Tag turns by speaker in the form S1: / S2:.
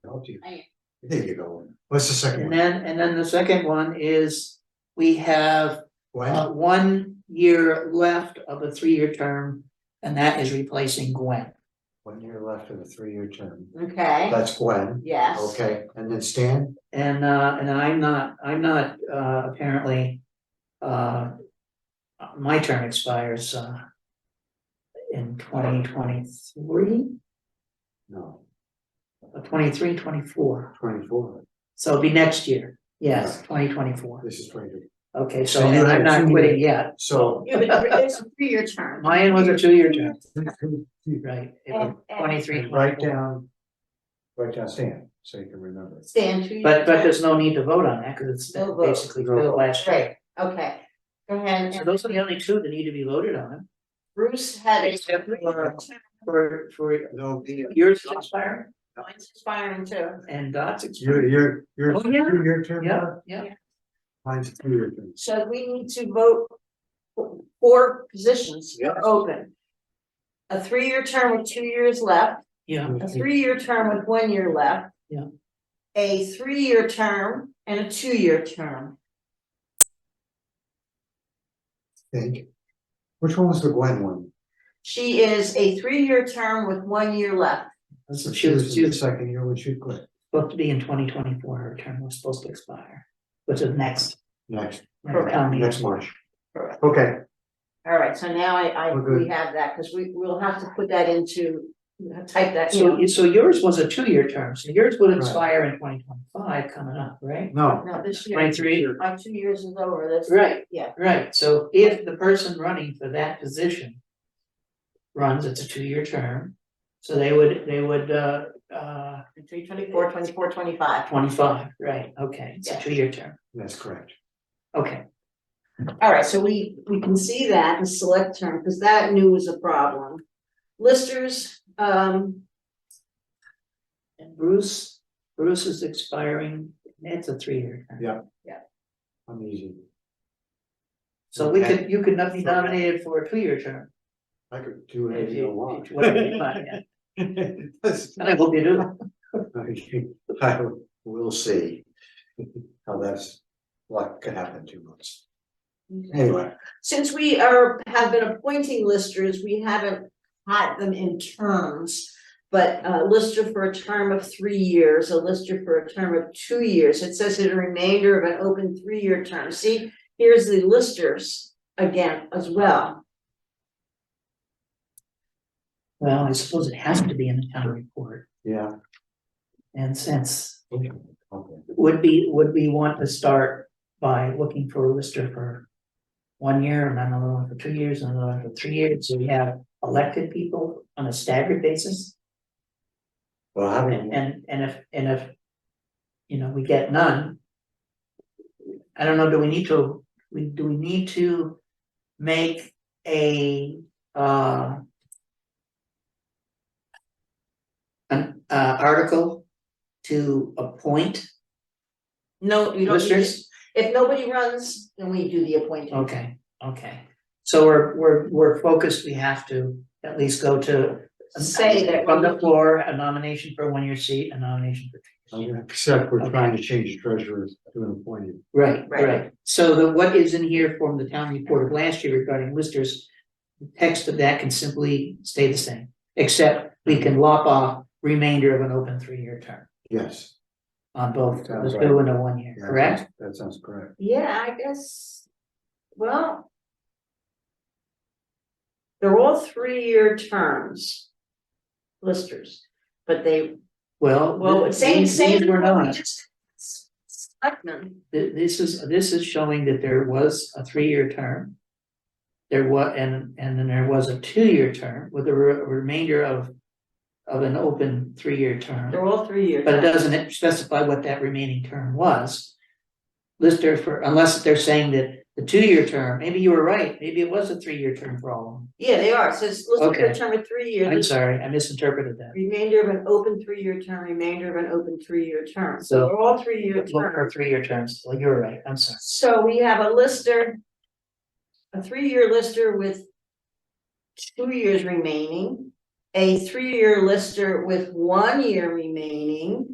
S1: aren't you?
S2: I am.
S1: There you go. What's the second
S3: And
S1: one?
S3: then, and then the second one is, we have uh
S1: Gwen?
S3: one year left of a three-year term. And that is replacing Gwen.
S1: One year left of a three-year term.
S2: Okay,
S1: That's Gwen.
S2: yes.
S1: Okay, and then Stan?
S3: And uh, and I'm not, I'm not uh apparently. Uh. My term expires uh. In twenty twenty-three, uh,
S1: No,
S3: twenty-three, twenty-four,
S1: twenty-four.
S3: so it'll be next year, yes, twenty twenty-four.
S1: This is twenty-three.
S3: Okay, so
S1: So you
S3: and
S1: had
S3: I'm
S1: two
S3: not
S1: years.
S3: quitting yet,
S1: So.
S2: Yeah, but It's a three-year term.
S3: mine was a two-year term,
S1: Right
S3: right, it
S2: And-
S3: was
S2: and-
S3: twenty-three, twenty-four.
S1: down. Write down Stan, so you can remember.
S2: Stand two.
S3: But but there's no need to vote on that, cause it's
S2: No vote.
S3: basically
S1: No
S3: filled
S1: vote.
S3: last year.
S2: Right, okay. Go ahead.
S3: So
S2: and-
S3: those are the only two that need to be voted on,
S2: Bruce had a.
S3: Except for- for for
S1: No,
S3: yours is expiring
S2: Mine's expiring too.
S3: and Dot's expiring.
S1: your, your, your,
S3: Oh, yeah.
S1: your, your term,
S3: Yeah, yeah,
S1: mine's a two-year term.
S2: So we need to vote. for Four positions
S1: Yes.
S2: open. A three-year term with two years left.
S3: yeah,
S2: a three-year term with one year left.
S3: Yeah.
S2: A three-year term and a two-year term.
S1: Think. Which one was the Gwen one?
S2: She is a three-year term with one year left.
S3: so she was, she
S1: in the
S3: was
S1: Second year when she quit,
S3: supposed to be in twenty twenty-four, her term was supposed to expire, which is next.
S1: next,
S3: next town meeting.
S1: next March.
S2: Correct.
S1: Okay,
S2: All right, so now I, I,
S1: We're good.
S2: we have that, because we, we'll have to put that into, type that
S3: So
S2: in.
S3: you, so yours was a two-year term, so yours would
S1: Right.
S3: expire in twenty twenty-five coming up, right?
S1: no,
S2: No, this year,
S3: Twenty-three,
S2: my two years is over, that's.
S3: right,
S2: Yeah.
S3: right, so if the person running for that position. Runs, it's a two-year term, so they would, they would, uh, uh,
S2: Three twenty-four, twenty-four, twenty-five.
S3: twenty-five, right, okay, it's
S2: Yeah.
S3: a two-year term,
S1: that's correct.
S3: okay.
S2: All right, so we, we can see that in select term, because that knew was a problem. Listers, um,
S3: And Bruce, Bruce is expiring, it's a three-year term.
S1: Yeah. I'm easy.
S3: So we
S1: Okay.
S3: could, you could not be nominated for a two-year term.
S1: I could do
S3: if
S1: whatever
S3: you-
S1: you want.
S3: whatever you want, yeah.
S1: That's-
S3: And I hope you do.
S1: Okay, I will see how that's, what could happen in two months. Anyway,
S2: Since we are, have been appointing listers, we haven't had them in terms. But a lister for a term of three years, a lister for a term of two years, it says that a remainder of an open three-year term, see, here's the listers again as well.
S3: Well, I suppose it has to be in the town report,
S1: yeah.
S3: and since,
S1: Okay. Okay.
S3: would be, would we want to start by looking for a lister for one year, and then another one for two years, and another one for three years, so we have elected people on a staggered basis?
S1: Well, having,
S3: And, and, and if, and if, you know, we get none, I don't know, do we need to, we, do we need to make a, uh, an, uh, article to appoint
S2: No, you don't need it.
S3: listers?
S2: If nobody runs, then we do the appointing.
S3: Okay, okay. So we're, we're, we're focused, we have to at least go to
S2: Say that
S3: from the
S2: we're-
S3: floor, a nomination for a one-year seat, a nomination for two.
S1: I'm gonna accept, we're trying to change treasurer to an appointed.
S3: Right,
S2: Right.
S3: right. So the, what is in here from the town report of last year regarding listers, the text of that can simply stay the same, except we
S2: Mm-hmm.
S3: can lop off remainder of an open three-year term
S1: Yes.
S3: on both,
S1: Sounds
S3: the
S1: right.
S3: two and the one year,
S1: yeah,
S3: correct?
S1: That sounds correct.
S2: Yeah, I guess, well. They're all three-year terms. Listers, but they,
S3: Well.
S2: well,
S3: th-
S2: same,
S3: these-
S2: same.
S3: These were
S2: what we
S3: not.
S2: just- Selectmen,
S3: Th- This is, this is showing that there was a three-year term. There was, and, and then there was a two-year term with a re- remainder of, of an open three-year term.
S2: they're all three-year.
S3: But it
S2: terms.
S3: doesn't specify what that remaining term was. Lister for, unless they're saying that the two-year term, maybe you were right, maybe it was a three-year term for all of them.
S2: Yeah, they are, It says listers for a
S3: Okay.
S2: term of three years.
S3: I'm sorry, I misinterpreted that.
S2: Remainder of an open three-year term, remainder of an open three-year term, so
S3: So-
S2: they're all three-year terms.
S3: Look for three-year terms, well, you're right, I'm sorry.
S2: So we have a lister. A three-year lister with. Two years remaining, a three-year lister with one year remaining.